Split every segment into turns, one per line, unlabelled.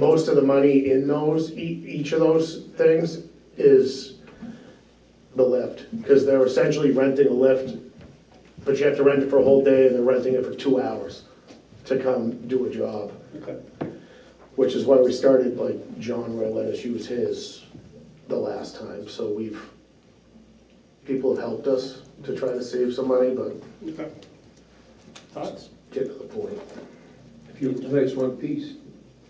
most of the money in those, e- each of those things is the lift, because they're essentially renting a lift, but you have to rent it for a whole day, and they're renting it for two hours to come do a job,
Okay,
which is why we started, like, John Roy let us use his the last time, so we've, people have helped us to try to save some money, but
okay. Thoughts?
get to the point.
If you replace one piece,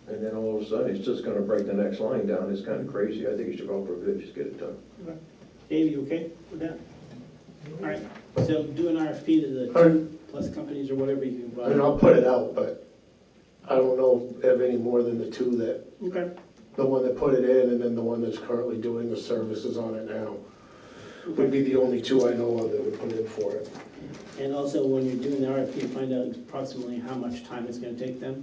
and then all of a sudden, it's just gonna break the next line down, it's kinda crazy, I think you should go for a bid, just get it done.
Okay. Dave, you okay with that? All right, so do an RFP to the
All right.
two plus companies or whatever you can
I mean,
buy.
I'll put it out, but I don't know if I have any more than the two that
Okay,
the one that put it in and then the one that's currently doing the services on it now would be the only two I know of that would put in for it.
and also when you're doing the RFP, find out approximately how much time it's gonna take them.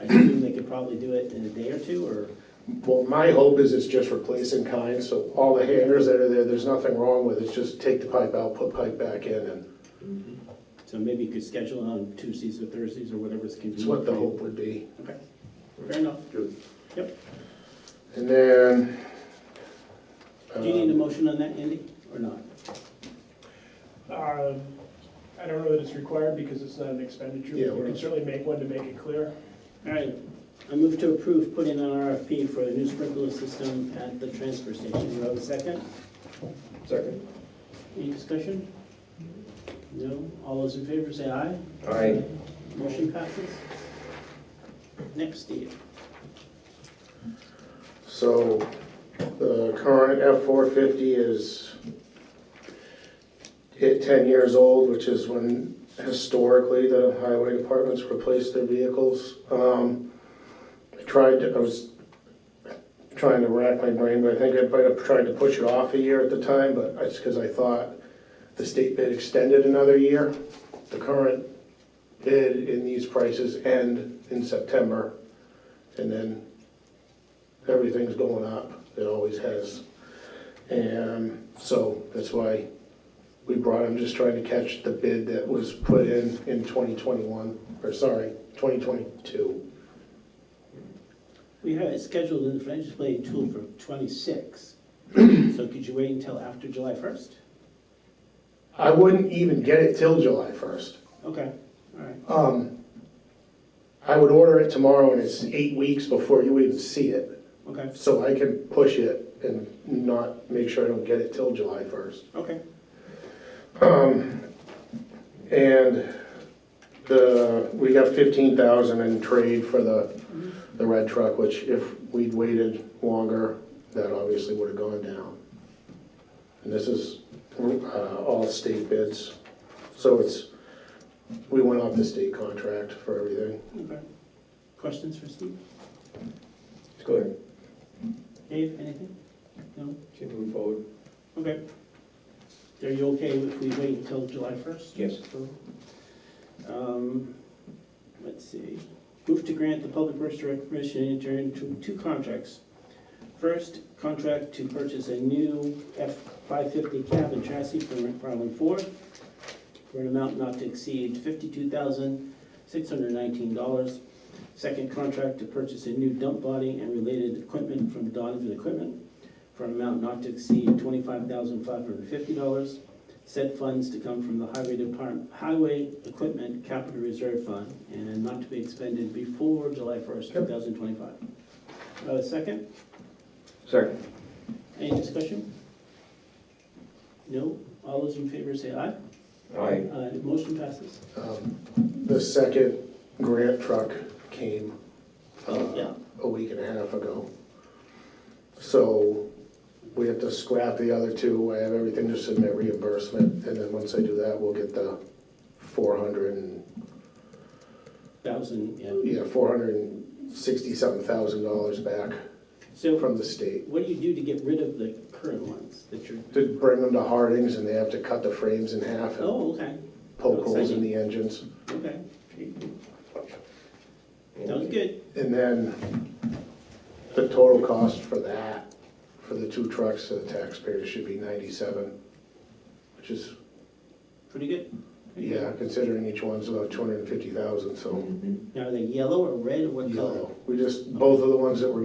I assume they could probably do it in a day or two, or,
Well, my hope is it's just replacing kind, so all the hangers that are there, there's nothing wrong with it, it's just take the pipe out, put pipe back in, and
so maybe you could schedule it on Tuesdays or Thursdays or whatever's convenient.
it's what the
for you.
hope would be.
Okay, fair enough.
Good.
Yep.
And then.
Do you need a
um,
motion on that, Andy, or not?
Um, I don't know that it's required because it's not an expenditure.
Yeah,
You
we're-
can certainly make one to make it clear.
All right, I move to approve putting an RFP for a new sprinkler system at the transfer station. Do I have a second?
Second?
Any discussion? No? All those in favor say aye.
Aye.
Motion passes. Next, Steve.
So the current F-450 is hit 10 years old, which is when historically the highway departments replace their vehicles. Um, I tried, to- I was trying to rack my brain, but I think I might have tried to push it off a year at the time, but it's because I thought the state bid extended another year. The current bid in these prices end in September, and then everything's going up, it always has. And so that's why we brought him, just trying to catch the bid that was put in in 2021, or sorry, 2022.
We have it scheduled in the financial planning tool for twenty-six. So could you wait until after July first?
I wouldn't even get it till July 1st.
Okay, all right.
Um, I would order it tomorrow and it's eight weeks before you even see it.
Okay,
So I can push it and not, make sure I don't get it till July 1st.
okay.
And the, we got fifteen thousand in trade for the, the red truck, which if we'd waited longer, that obviously would have gone down. And this is, uh, all state bids, so it's, we went off the state contract for everything.
Okay. Questions for Steve?
Let's go ahead,
Dave, anything? No?
Can you move forward?
Okay. Are you okay if we wait until July first?
Yes.
Um, Let's see. Move to grant the Public Works Director permission to enter into two contracts. First, contract to purchase a new F-550 cab and chassis from McFarland Ford for an amount not to exceed $52,619. Second, contract to purchase a new dump body and related equipment from Donovan Equipment for an amount not to exceed $25,550. Said funds to come from the highway department, highway equipment capital reserve fund and not to be expended before July first, two
Yep.
thousand twenty-five. Uh, second,
Second?
any discussion? No, all those in favor say aye.
Aye.
Uh, motion passes.
Um, The second grant truck came uh,
Oh, yeah,
a week and a half ago. So we have to scrap the other two. I have everything to submit reimbursement, and then once I do that, we'll get the four hundred and,
thousand, yeah.
yeah, four hundred and sixty-seven thousand dollars back
So
from the state.
what do you do to get rid of the current ones that you're,
To bring them to Hardings, and they have to cut the frames in half and
oh, okay,
poke holes in the engines.
okay. Sounds good.
And then the total cost for that, for the two trucks to the taxpayers should be ninety-seven, which is
Pretty good.
Yeah, considering each one's about two hundred and fifty thousand, so.
Now, are they yellow or red or what color?
Yellow. We just, both of the ones that were